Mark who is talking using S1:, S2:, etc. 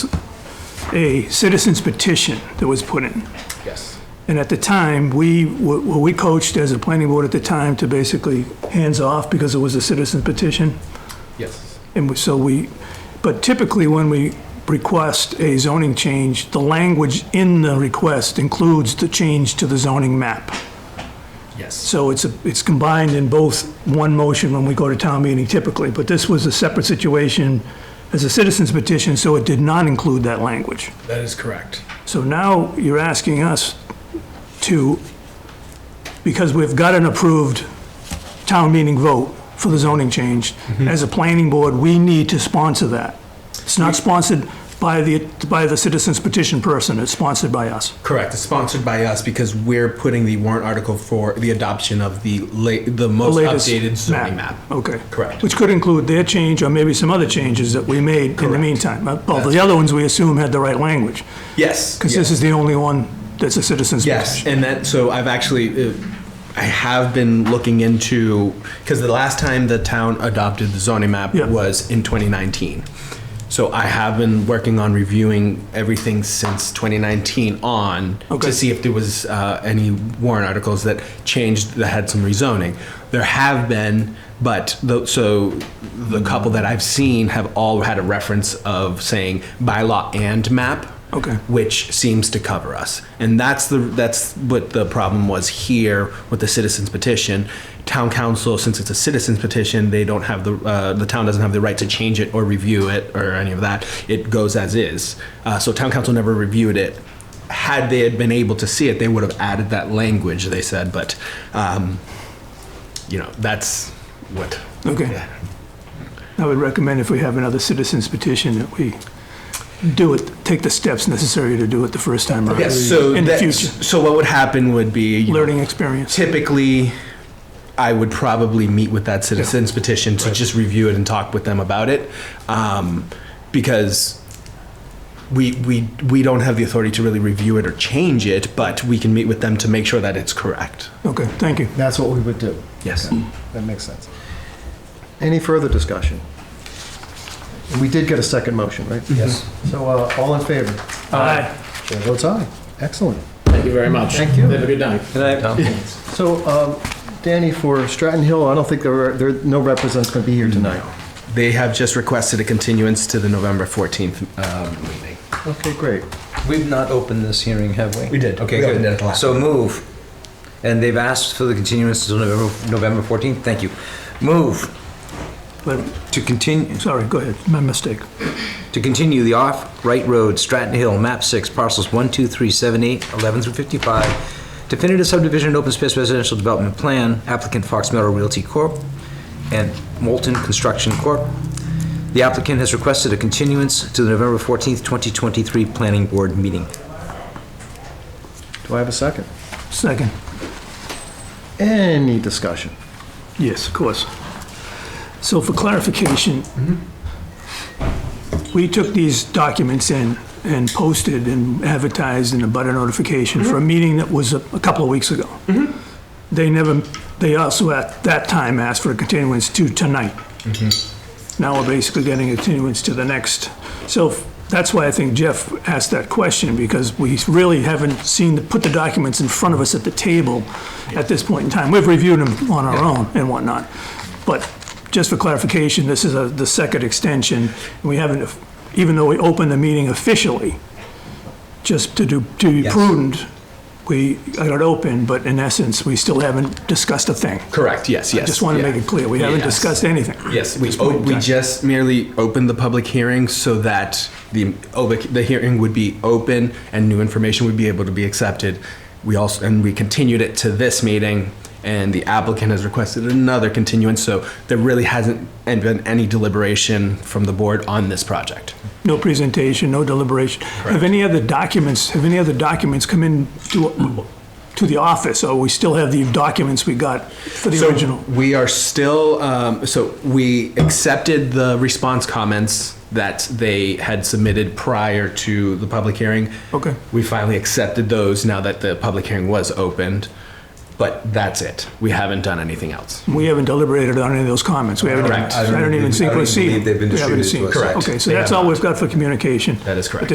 S1: a citizen's petition that was put in.
S2: Yes.
S1: And at the time, we, what what we coached as a planning board at the time to basically hands off because it was a citizen petition.
S2: Yes.
S1: And we- so we, but typically when we request a zoning change, the language in the request includes the change to the zoning map.
S2: Yes.
S1: So it's, a- it's combined in both one motion when we go to town meeting typically, but this was a separate situation as a citizen's petition, so it did not include that language.
S2: That is correct.
S1: So now you're asking us to, because we've got an approved town meeting vote for the zoning change,
S2: Mm-hmm.
S1: as a planning board, we need to sponsor that. It's not sponsored by the, by the citizens petition person, it's sponsored by us.
S2: Correct. It's sponsored by us because we're putting the warrant article for the adoption of the la- the
S1: The
S2: most
S1: latest
S2: updated zoning map.
S1: Okay.
S2: Correct.
S1: Which could include their change or maybe some other changes that we made in the
S2: Correct.
S1: meantime. Uh, Well,
S2: That's-
S1: the other ones we assume had the right language,
S2: Yes.
S1: because this is the only one that's a citizens
S2: Yes,
S1: petition.
S2: and that so I've actually uh, I have been looking into because the last time the town adopted the zoning map
S1: Yeah.
S2: was in 2019. So I have been working on reviewing everything since 2019 on
S1: Okay.
S2: to see if there was uh, any warrant articles that changed that had some rezoning. There have been, but the, so the couple that I've seen have all had a reference of saying bylaw and map
S1: Okay.
S2: which seems to cover us. And that's the that's what the problem was here with the citizens petition. Town council, since it's a citizens petition, they don't have the uh, the town doesn't have the right to change it or review it or any of that. It goes as is. Uh, so town council never reviewed it. Had they had been able to see it, they would have added that language. They said, but um, you know that's what.
S1: Okay. I would recommend if we have another citizens petition that we do it, take the steps necessary to do it the first time around.
S2: Yes. So
S1: In the
S2: that,
S1: future,
S2: so what would happen would be you know,
S1: learning experience.
S2: typically I would probably meet with that citizens petition to just review it and talk with them about it um, because we, we we don't have the authority to really review it or change it, but we can meet with them to make sure that it's correct. Mm.
S1: Okay, thank you.
S3: That's what we would do.
S2: Yes.
S3: That makes sense. Any further discussion? We did get a second motion, right?
S4: Mm-hmm.
S3: Yes. So uh, all in favor?
S1: Aye.
S3: Chair votes aye. Excellent.
S4: Thank you very much.
S3: Thank you.
S4: Have a good night.
S3: So um, Danny, for Stratton Hill, I don't think there are, there, no representatives going to be here tonight.
S2: They have just requested a continuance to the November 14th um, meeting.
S3: Okay, great.
S5: We've not opened this hearing, have we?
S2: We did.
S5: Okay,
S2: We opened it at the
S5: good.
S2: last.
S5: So move. And they've asked for the continuance until November, November 14th? Thank you. Move
S1: But,
S5: to continue,
S1: sorry, go ahead, my mistake.
S5: to continue the off-right road, Stratton Hill, map 6, parcels 1, 2, 3, 7, 8, 11 through 55, definitive subdivision and open space residential development plan, applicant Fox Meadow Realty Corp. and Moulton Construction Corp. The applicant has requested a continuance to the November 14th, 2023 Planning Board meeting.
S3: Do I have a second?
S1: Second.
S3: Any discussion?
S1: Yes, of course. So for clarification, we took these documents in and posted and advertised in a butter notification
S2: Mm-hmm.
S1: for a meeting that was a a couple of weeks ago. They never, they also at that time asked for a continuance to tonight. Now we're basically getting a continuance to the next. So f- that's why I think Jeff asked that question, because we really haven't seen, the- put the documents in front of us at the table at this point in time. We've reviewed them on our own and whatnot. But just for clarification, this is a- the second extension. We haven't, even though we opened the meeting officially, just to do, to be
S5: Yes.
S1: prudent, we got it open, but in essence, we still haven't discussed a thing.
S2: Correct. Yes. Yes.
S1: Just want to
S2: yeah.
S1: make it clear, we haven't
S2: Yes.
S1: discussed anything.
S2: Yes, we,
S1: point
S2: o-
S1: in
S2: we
S1: time.
S2: just merely opened the public hearing so that the, obic- the hearing would be open and new information would be able to be accepted. We also, and we continued it to this meeting and the applicant has requested another continuance, so there really hasn't been any deliberation from the board on this project.
S1: No presentation, no deliberation. Have any other documents, have any other documents come in to, to the office, or we still have the documents we got for the
S2: So
S1: original?
S2: We are still, um, so we accepted the response comments that they had submitted prior to the public hearing.
S1: Okay.
S2: We finally accepted those now that the public hearing was opened, but that's it. We haven't done anything else.
S1: We haven't deliberated on any of those comments. We haven't, even-
S2: Correct. I
S1: I don't even
S5: believe-
S1: think
S5: I don't
S1: we've
S5: even
S1: seen.
S5: believe they've been
S1: we haven't
S5: distributed to
S1: seen.
S5: us. Correct.
S1: Okay, so
S2: They
S1: that's
S2: have
S1: all
S2: not.
S1: we've got for communication.
S2: That is correct.
S1: At